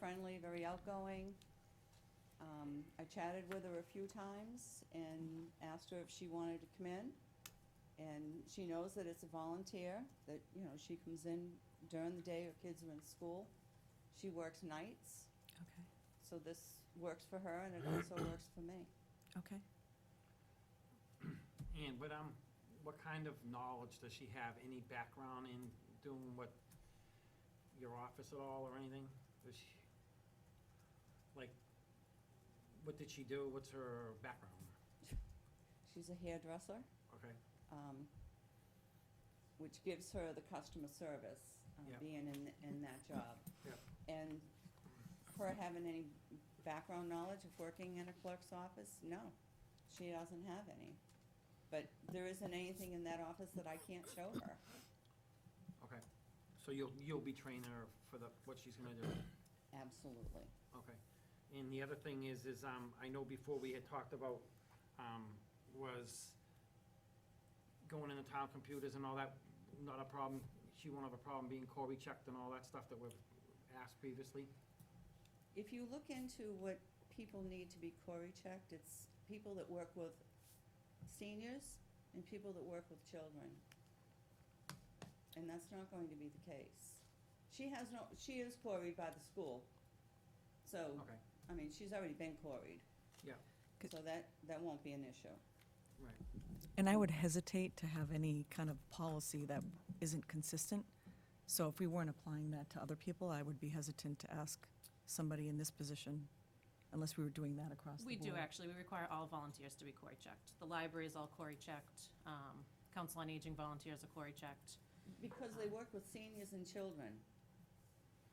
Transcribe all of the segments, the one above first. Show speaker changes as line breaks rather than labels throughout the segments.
friendly, very outgoing. Um, I chatted with her a few times and asked her if she wanted to come in. And she knows that it's a volunteer, that, you know, she comes in during the day, her kids are in school. She works nights,
Okay,
so this works for her and it also works for me.
okay.
And, but, um, what kind of knowledge does she have? Any background in doing what, your office at all or anything? Does she, like, what did she do? What's her background?
She's a hairdresser.
Okay,
um, which gives her the customer service, uh,
Yeah.
being in, in that job.
Yeah.
And her having any background knowledge of working in a clerk's office, no, she doesn't have any. But there isn't anything in that office that I can't show her.
okay. So you'll, you'll be training her for the, what she's gonna do?
Absolutely.
Okay. And the other thing is, is, um, I know before we had talked about, um, was going into town computers and all that, not a problem, she won't have a problem being Corey checked and all that stuff that we've asked previously.
If you look into what people need to be Cory checked, it's people that work with seniors and people that work with children. And that's not going to be the case. She has no, she is Coryed by the school. So,
Okay,
I mean, she's already been Coryed.
Yeah.
Good.
So that, that won't be an issue.
right.
And I would hesitate to have any kind of policy that isn't consistent. So if we weren't applying that to other people, I would be hesitant to ask somebody in this position unless we were doing that across the
We
board.
do, actually. We require all volunteers to be Cory checked. The library is all Cory checked. Um, Council on Aging volunteers are Cory checked.
Because they work with seniors and children.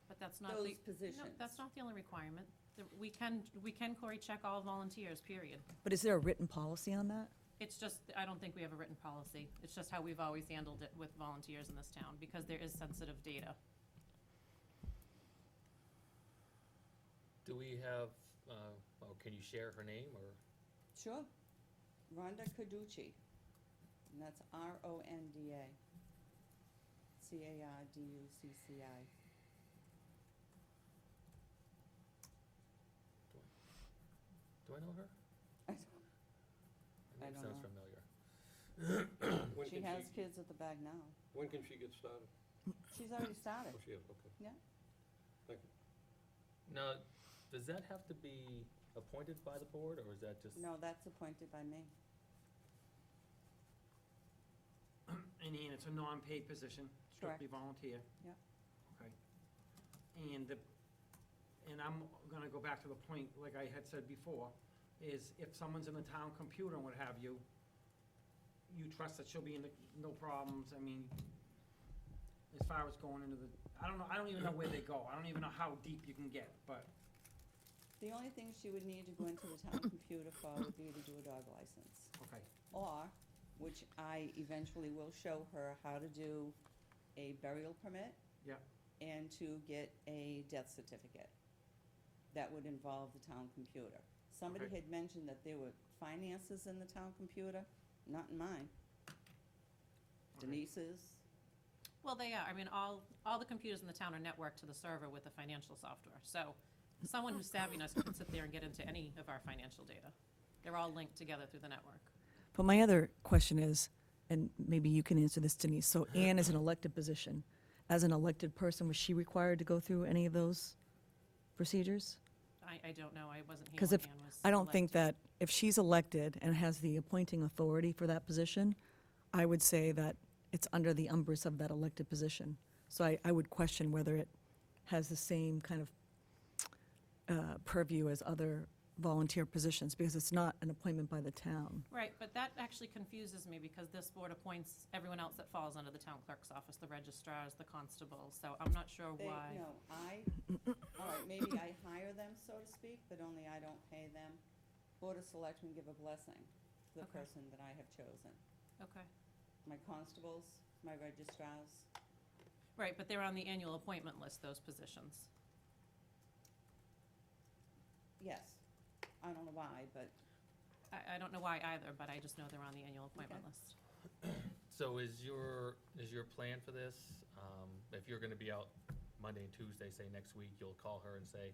But that's not
Those
the. No,
positions.
that's not the only requirement. The- We can, we can Cory check all volunteers, period.
But is there a written policy on that?
It's just, I don't think we have a written policy. It's just how we've always handled it with volunteers in this town because there is sensitive data.
Do we have, uh, oh, can you share her name or?
Sure. Rhonda Carducci. And that's R O N D A. C A R D U C C I.
Do I know her?
I don't-
Her
I
name
don't
sounds
know.
familiar.
When
She
can
has
she,
kids at the back now.
when can she get started?
She's already
Oh,
started.
she has, okay.
Now, does that have to be appointed by the board or is that just?
No, that's appointed by me.
And Ian, it's a non-paid position, strictly volunteer.
Yep.
Okay. And the, and I'm gonna go back to the point, like I had said before, is if someone's in the town computer and what have you, you trust that she'll be in the, no problems, I mean, as far as going into the, I don't know, I don't even know where they go, I don't even know how deep you can get, but,
The only thing she would need to go into the town computer for would be to do a dog license.
okay,
Or, which I eventually will show her how to do a burial permit
yeah,
and to get a death certificate. That would involve the town computer. Somebody
Okay.
had mentioned that there were finances in the town computer, not in mine.
Okay.
Denise's,
Well, they are. I mean, all, all the computers in the town are networked to the server with the financial software. So someone who's savvy enough can sit there and get into any of our financial data. They're all linked together through the network.
But my other question is, and maybe you can answer this, Denise, so Anne is an elected position. As an elected person, was she required to go through any of those procedures?
I, I don't know. I wasn't here
Because
when
if,
Ann was
I don't think
elected.
that, if she's elected and has the appointing authority for that position, I would say that it's under the umbrus of that elected position. So I, I would question whether it has the same kind of uh, purview as other volunteer positions, because it's not an appointment by the town.
Right, but that actually confuses me because this board appoints everyone else that falls under the town clerk's office, the registrars, the constables. So I'm not sure
they,
why.
no, I, all right, maybe I hire them, so to speak, but only I don't pay them. Board of Selectmen give a blessing to the
Okay.
person that I have chosen.
Okay.
My constables, my registrars,
Right, but they're on the annual appointment list, those positions.
yes. I don't know why, but
I, I don't know why either, but I just know they're on the annual appointment
Okay.
list.
So is your, is your plan for this, um, if you're gonna be out Monday and Tuesday, say next week, you'll call her and say,